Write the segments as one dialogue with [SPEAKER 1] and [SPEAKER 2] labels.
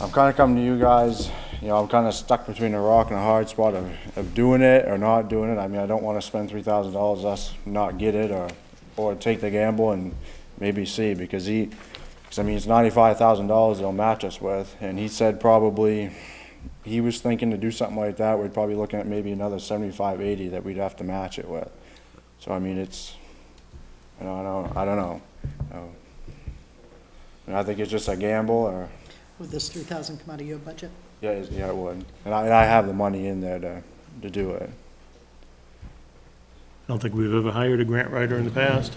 [SPEAKER 1] I'm kind of coming to you guys, you know, I'm kind of stuck between a rock and a hard spot of, of doing it or not doing it. I mean, I don't want to spend three thousand dollars, us not get it or, or take the gamble and maybe see because he, because I mean, it's ninety-five thousand dollars they'll match us with. And he said probably, he was thinking to do something like that, we're probably looking at maybe another seventy-five, eighty that we'd have to match it with. So I mean, it's, you know, I don't, I don't know. Um, And I think it's just a gamble or.
[SPEAKER 2] Would this three thousand come out of your budget?
[SPEAKER 1] Yeah, it's- yeah, it would. And I, and I have the money in there to, to do it.
[SPEAKER 3] I don't think we've ever hired a grant writer in the past.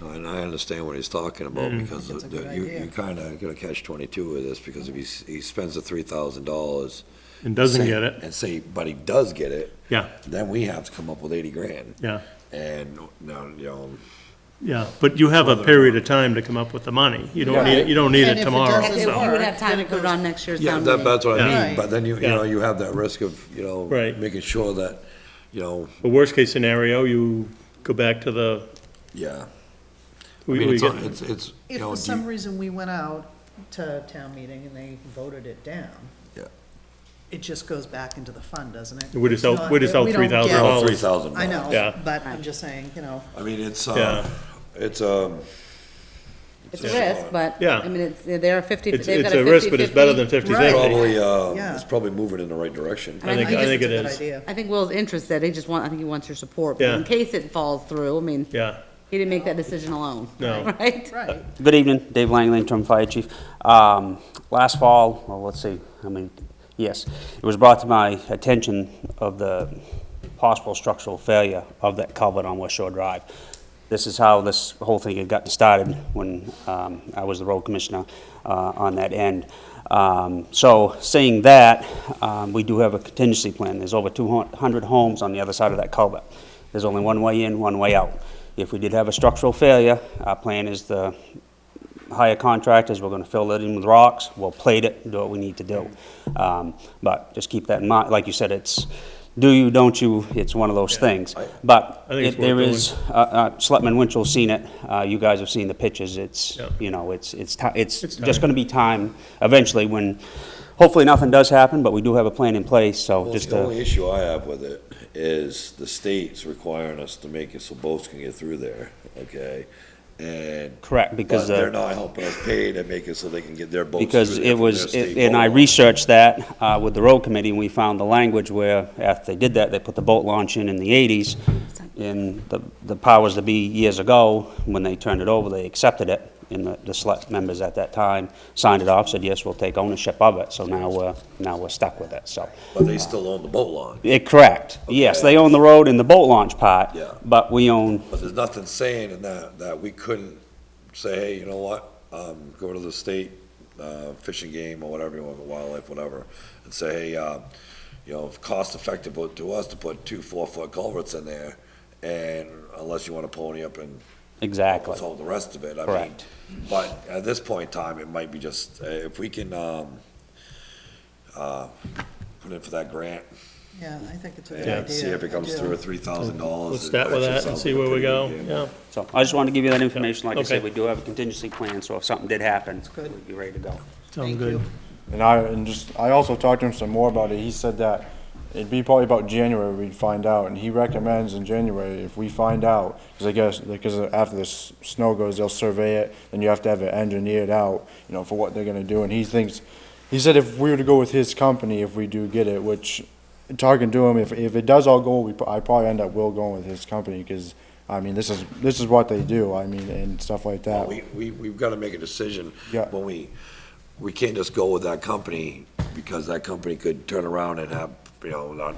[SPEAKER 4] No, And I understand what he's talking about,
[SPEAKER 3] Mm.
[SPEAKER 4] because
[SPEAKER 2] That's a
[SPEAKER 4] the-
[SPEAKER 2] good
[SPEAKER 4] you,
[SPEAKER 2] idea.
[SPEAKER 4] you kinda gonna catch twenty-two with this, because if he, s- he spends the three thousand dollars.
[SPEAKER 3] And doesn't get it,
[SPEAKER 4] And say, but he does get it,
[SPEAKER 3] yeah,
[SPEAKER 4] then we have to come up with eighty grand,
[SPEAKER 3] yeah,
[SPEAKER 4] and, now, you know,
[SPEAKER 3] yeah. But you have a period of time to come up with the money. You don't need, you don't need
[SPEAKER 2] And
[SPEAKER 3] it
[SPEAKER 2] if it
[SPEAKER 3] tomorrow,
[SPEAKER 2] doesn't-
[SPEAKER 3] so.
[SPEAKER 2] Yeah.
[SPEAKER 5] You would have time to put it on next year's
[SPEAKER 4] Yeah,
[SPEAKER 5] town
[SPEAKER 4] that,
[SPEAKER 5] meeting.
[SPEAKER 4] that's what I
[SPEAKER 2] Yeah.
[SPEAKER 4] mean, but then you, you
[SPEAKER 3] Yeah.
[SPEAKER 4] know, you have that risk of, you know,
[SPEAKER 3] Right.
[SPEAKER 4] making sure that, you know,
[SPEAKER 3] The worst-case scenario, you go back to the,
[SPEAKER 4] yeah. I
[SPEAKER 3] we,
[SPEAKER 4] mean,
[SPEAKER 3] we
[SPEAKER 4] it's,
[SPEAKER 3] get,
[SPEAKER 4] it's, it's, you
[SPEAKER 2] If
[SPEAKER 4] know,
[SPEAKER 2] for
[SPEAKER 4] do
[SPEAKER 2] some
[SPEAKER 4] you-
[SPEAKER 2] reason we went out to town meeting and they voted it down,
[SPEAKER 4] yeah,
[SPEAKER 2] it just goes back into the fund, doesn't it?
[SPEAKER 3] We
[SPEAKER 2] It's
[SPEAKER 3] just out-
[SPEAKER 2] not-
[SPEAKER 3] we just out
[SPEAKER 2] don't
[SPEAKER 3] $3,000.
[SPEAKER 2] get-
[SPEAKER 4] Oh, three thousand.
[SPEAKER 2] I know,
[SPEAKER 3] Yeah.
[SPEAKER 2] but I'm just saying, you know,
[SPEAKER 4] I mean, it's,
[SPEAKER 3] Yeah.
[SPEAKER 4] uh, it's, um, uh,
[SPEAKER 5] It's a risk, but,
[SPEAKER 3] Yeah.
[SPEAKER 5] I mean, it's, they're a fifty,
[SPEAKER 3] it's,
[SPEAKER 5] they've
[SPEAKER 3] it's
[SPEAKER 5] got a
[SPEAKER 3] a
[SPEAKER 5] fifty-fifty.
[SPEAKER 3] risk, but it's better than fifty-fifty.
[SPEAKER 4] probably, uh,
[SPEAKER 2] Yeah.
[SPEAKER 4] it's probably moving in the right direction.
[SPEAKER 3] I think,
[SPEAKER 5] I
[SPEAKER 3] I
[SPEAKER 5] guess
[SPEAKER 3] think
[SPEAKER 2] it's
[SPEAKER 3] it
[SPEAKER 2] a good
[SPEAKER 3] is.
[SPEAKER 2] idea.
[SPEAKER 5] I think Will's interested, he just want, I think he wants your support, but
[SPEAKER 3] Yeah.
[SPEAKER 5] in case it falls through, I mean,
[SPEAKER 3] Yeah,
[SPEAKER 5] he didn't make that decision alone.
[SPEAKER 3] No.
[SPEAKER 5] Right?
[SPEAKER 2] right,
[SPEAKER 6] Good evening, Dave Langley, interim fire chief. Um, Last fall, well, let's see, I mean, yes, it was brought to my attention of the possible structural failure of that culvert on West Shore Drive. This is how this whole thing had gotten started when um, I was the road commissioner uh, on that end. Um, So seeing that, um, we do have a contingency plan. There's over 200 homes on the other side of that culvert. There's only one way in, one way out. If we did have a structural failure, our plan is to hire contractors, we're gonna fill it in with rocks, we'll plate it, do what we need to do. Um, But just keep that in mind, like you said, it's do you, don't you, it's one of those things. But
[SPEAKER 3] I think it's
[SPEAKER 6] it- there
[SPEAKER 3] worth
[SPEAKER 6] is, uh, uh, Selectman Winchell's seen it, uh, you guys have seen the pictures, it's,
[SPEAKER 3] Yeah.
[SPEAKER 6] you know, it's, it's, ti- it's
[SPEAKER 3] It's
[SPEAKER 6] just
[SPEAKER 3] time.
[SPEAKER 6] gonna be time eventually when, hopefully nothing does happen, but we do have a plan in place, so
[SPEAKER 4] Well,
[SPEAKER 6] just uh,
[SPEAKER 4] the only
[SPEAKER 6] to,
[SPEAKER 4] issue I have with it is the state's requiring us to make it so boats can get through there, okay? And.
[SPEAKER 6] correct,
[SPEAKER 4] But
[SPEAKER 6] because. uh,
[SPEAKER 4] they're not helping us pay to make it so they can get their boats through
[SPEAKER 6] Because
[SPEAKER 4] there
[SPEAKER 6] it
[SPEAKER 4] from their
[SPEAKER 6] was,
[SPEAKER 4] state
[SPEAKER 6] and I
[SPEAKER 4] boat.
[SPEAKER 6] researched that uh, with the road committee, and we found the language where, after they did that, they put the boat launch in in the 80s, and the the powers that be years ago, when they turned it over, they accepted it, and the- the select members at that time signed it off, said, yes, we'll take ownership of it, so now we're, now we're stuck with it, so.
[SPEAKER 4] But they still own the boat launch.
[SPEAKER 6] Yeah, Correct, yes,
[SPEAKER 4] Okay.
[SPEAKER 6] they own the road and the boat launch part,
[SPEAKER 4] Yeah.
[SPEAKER 6] but we own,
[SPEAKER 4] But there's nothing saying in that, that we couldn't say, hey, you know what, um, go to the state, uh, fishing game or whatever, you want, wildlife, whatever, and say, hey, uh, you know, it's cost effective to us to put two four-foot culverts in there, and unless you wanna pony up and
[SPEAKER 6] exactly,
[SPEAKER 4] All the rest of it, I mean,
[SPEAKER 6] Correct.
[SPEAKER 4] but at this point in time, it might be just, uh, if we can, um, uh, put in for that grant,
[SPEAKER 2] yeah, I think it's a good idea.
[SPEAKER 4] and see if it comes
[SPEAKER 2] I do.
[SPEAKER 4] through at three thousand dollars.
[SPEAKER 3] Let's start with that and see where we go, yeah.
[SPEAKER 6] so I just wanted to give you that information, like I said,
[SPEAKER 3] Okay.
[SPEAKER 6] we do have a contingency plan, so if something did happen,
[SPEAKER 2] good.
[SPEAKER 6] we'd be ready to go.
[SPEAKER 3] Sounds
[SPEAKER 2] Thank
[SPEAKER 3] good.
[SPEAKER 2] you.
[SPEAKER 1] And I, and just, I also talked to him some more about it. He said that it'd be probably about January we'd find out. And he recommends in January, if we find out, because I guess, because after this snow goes, they'll survey it, and you have to have it engineered out, you know, for what they're gonna do. And he thinks, he said if we were to go with his company, if we do get it, which, talking to him, if, if it does all go, we, pro- I probably end up will going with his company, because, I mean, this is, this is what they do, I mean, and stuff like that.
[SPEAKER 4] We, we, we've gotta make a decision.
[SPEAKER 1] Yeah.
[SPEAKER 4] When we, we can't just go with that company, because that company could turn around and have, you know, not,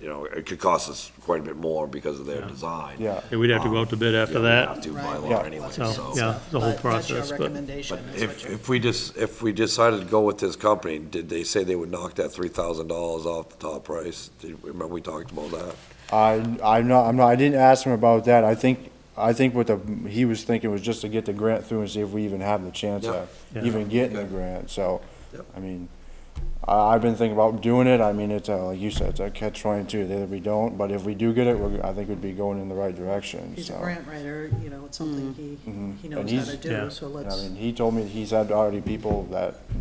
[SPEAKER 4] you know, it could cost us quite a bit more because of their design.
[SPEAKER 1] Yeah.
[SPEAKER 3] Yeah, We'd have to go out to bid
[SPEAKER 4] Yeah,
[SPEAKER 3] after
[SPEAKER 4] we
[SPEAKER 3] that,
[SPEAKER 4] have to by
[SPEAKER 2] Right.
[SPEAKER 4] law
[SPEAKER 1] Yeah.
[SPEAKER 4] anyway,
[SPEAKER 2] So,
[SPEAKER 4] so.
[SPEAKER 3] so, yeah, the whole
[SPEAKER 2] But that's your
[SPEAKER 3] process, but,
[SPEAKER 2] recommendation,
[SPEAKER 4] But
[SPEAKER 2] is what
[SPEAKER 4] if,
[SPEAKER 2] you're-
[SPEAKER 4] if we just, if we decided to go with this company, did they say they would knock that three thousand dollars off the top price? Did, remember we talked about that?
[SPEAKER 1] I, I'm not, I'm not, I didn't ask him about that. I think, I think what the, he was thinking was just to get the grant through and see if we even have the chance
[SPEAKER 4] Yeah.
[SPEAKER 1] of even getting the grant, so.
[SPEAKER 4] Yep.
[SPEAKER 1] I mean, I, I've been thinking about doing it. I mean, it's, a- like you said, it's a catch twenty-two, that we don't, but if we do get it, we're, I think we'd be going in the right direction, so.
[SPEAKER 2] He's a grant writer, you
[SPEAKER 4] mm-hmm.
[SPEAKER 2] know, it's something he, he
[SPEAKER 1] And
[SPEAKER 2] knows how
[SPEAKER 1] he's-
[SPEAKER 2] to
[SPEAKER 3] yeah.
[SPEAKER 2] do, so
[SPEAKER 1] And I
[SPEAKER 2] let's,
[SPEAKER 1] mean, he told me he's had already people that